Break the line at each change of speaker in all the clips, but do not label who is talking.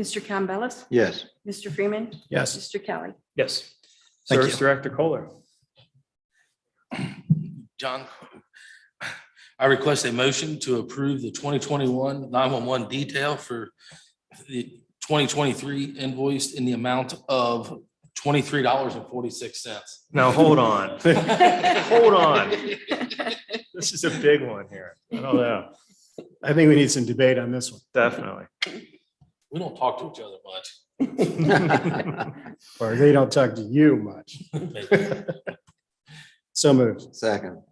Mr. Campbellis,
Yes.
Mr. Freeman,
Yes.
Mr. Kelly.
Yes.
Thank
Service
you.
Director Kohler.
John, I request a motion to approve the 2021 911 detail for the 2023 invoice in the amount of $23.46.
Now, hold on. Hold on. This is a big one here. I don't know.
I think we need some debate on this one.
Definitely.
We don't talk to each other much.
Or they don't talk to you much. So moved.
Second.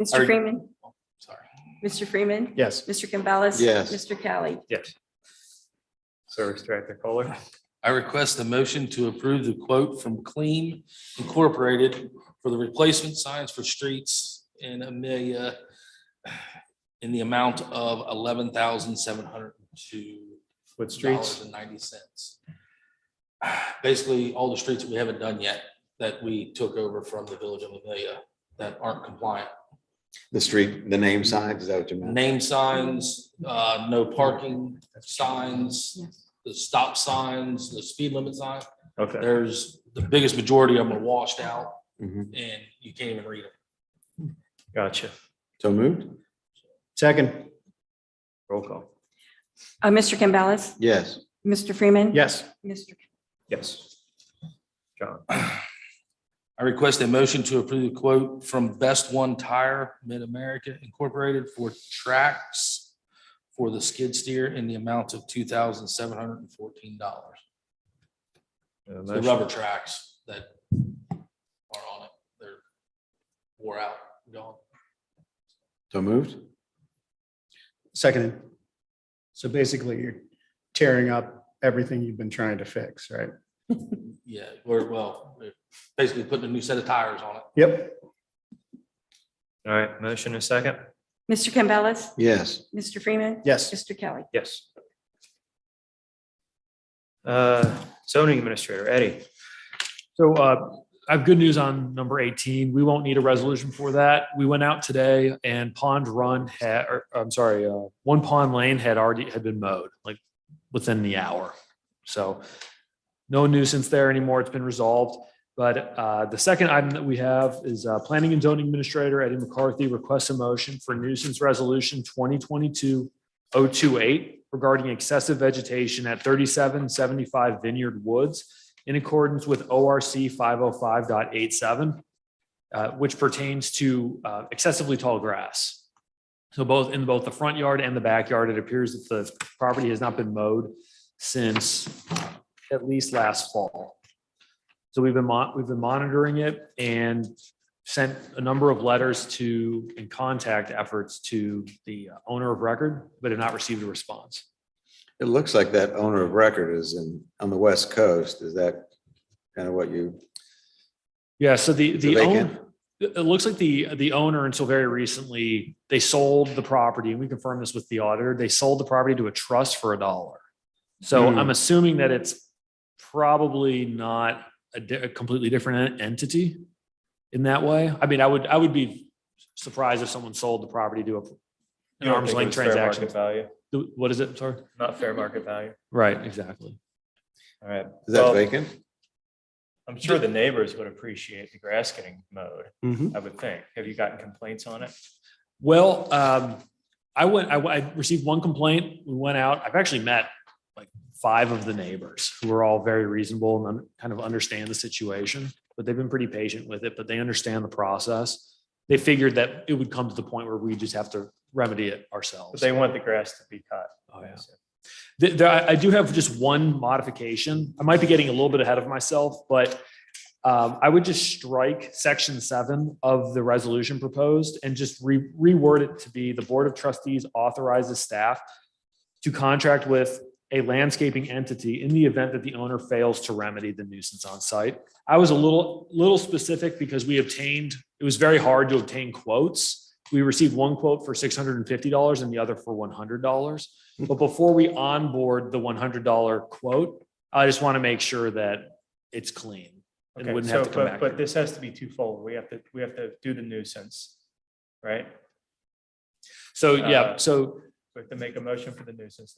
Mr.
Are-
Freeman,
Sorry.
Mr. Freeman,
Yes.
Mr. Campbellis.
Yes.
Mr. Kelly.
Yes. Service Director Kohler.
I request a motion to approve the quote from Clean Incorporated for the replacement signs for streets in Amelia in the amount of eleven thousand seven hundred and two
With
dollars
streets.
and ninety cents. Basically, all the streets we haven't done yet that we took over from the village of Amelia that aren't compliant.
The street, the name signs, is that what you meant?
Name signs, uh, no parking signs, the stop signs, the speed limit sign.
Okay.
There's, the biggest majority of them are washed out
Mhm.
and you can't even read them.
Gotcha.
So moved?
Second.
Roll call.
Uh, Mr. Campbellis,
Yes.
Mr. Freeman.
Yes.
Mr.
Yes. John.
I request a motion to approve the quote from Best One Tire Mid-America Incorporated for tracks for the skid steer in the amount of two thousand seven hundred and fourteen dollars.
A
The
motion.
rubber tracks that are on it, they're wore out, gone.
So moved?
Seconded. So basically, you're tearing up everything you've been trying to fix, right?
Yeah, we're, well, we're basically putting a new set of tires on it.
Yep.
All right, motion and second.
Mr. Campbellis,
Yes.
Mr. Freeman.
Yes.
Mr. Kelly.
Yes. Uh, Zoning Administrator Eddie.
So uh, I have good news on number 18. We won't need a resolution for that. We went out today and Pond Run had, or, I'm sorry, uh, One Pond Lane had already, had been mowed, like within the hour. So no nuisance there anymore. It's been resolved. But uh, the second item that we have is uh, Planning and Zoning Administrator Eddie McCarthy requests a motion for nuisance resolution 2022 028 regarding excessive vegetation at 3775 Vineyard Woods in accordance with ORC 505.87, uh, which pertains to uh, excessively tall grass. So both, in both the front yard and the backyard, it appears that the property has not been mowed since at least last fall. So we've been, mon- we've been monitoring it and sent a number of letters to, and contact efforts to the owner of record, but have not received a response.
It looks like that owner of record is in, on the west coast. Is that kind of what you,
Yeah, so the, the
vacant?
own, it it looks like the, the owner until very recently, they sold the property and we confirmed this with the auditor. They sold the property to a trust for a dollar. So
Hmm.
I'm assuming that it's probably not a di- a completely different en- entity in that way. I mean, I would, I would be surprised if someone sold the property to a
You
an
don't
arm's
think it
length
was fair market
transaction.
Value,
The- What is it? Sorry.
not fair market value.
Right, exactly.
All right.
is that
Well,
vacant?
I'm sure the neighbors would appreciate the grass getting mowed,
Mhm.
Mm-hmm.
I would think. Have you gotten complaints on it?
Well, um, I went, I, I received one complaint. We went out. I've actually met like five of the neighbors who are all very reasonable and un- kind of understand the situation, but they've been pretty patient with it, but they understand the process. They figured that it would come to the point where we just have to remedy it
But
ourselves.
they want the grass to be cut.
Oh, yeah. Th- There, I I do have just one modification. I might be getting a little bit ahead of myself, but um, I would just strike section seven of the resolution proposed and just re- reword it to be the Board of Trustees authorizes staff to contract with a landscaping entity in the event that the owner fails to remedy the nuisance on site. I was a little, little specific because we obtained, it was very hard to obtain quotes. We received one quote for six hundred and fifty dollars and the other for one hundred dollars. But before we onboard the one hundred dollar quote, I just want to make sure that it's clean and
Okay,
wouldn't have
so,
to come
but,
back.
but
here.
this has to be twofold. We have to, we have to do the nuisance, right?
So, yeah,
uh,
so
We have to make a motion for the nuisance.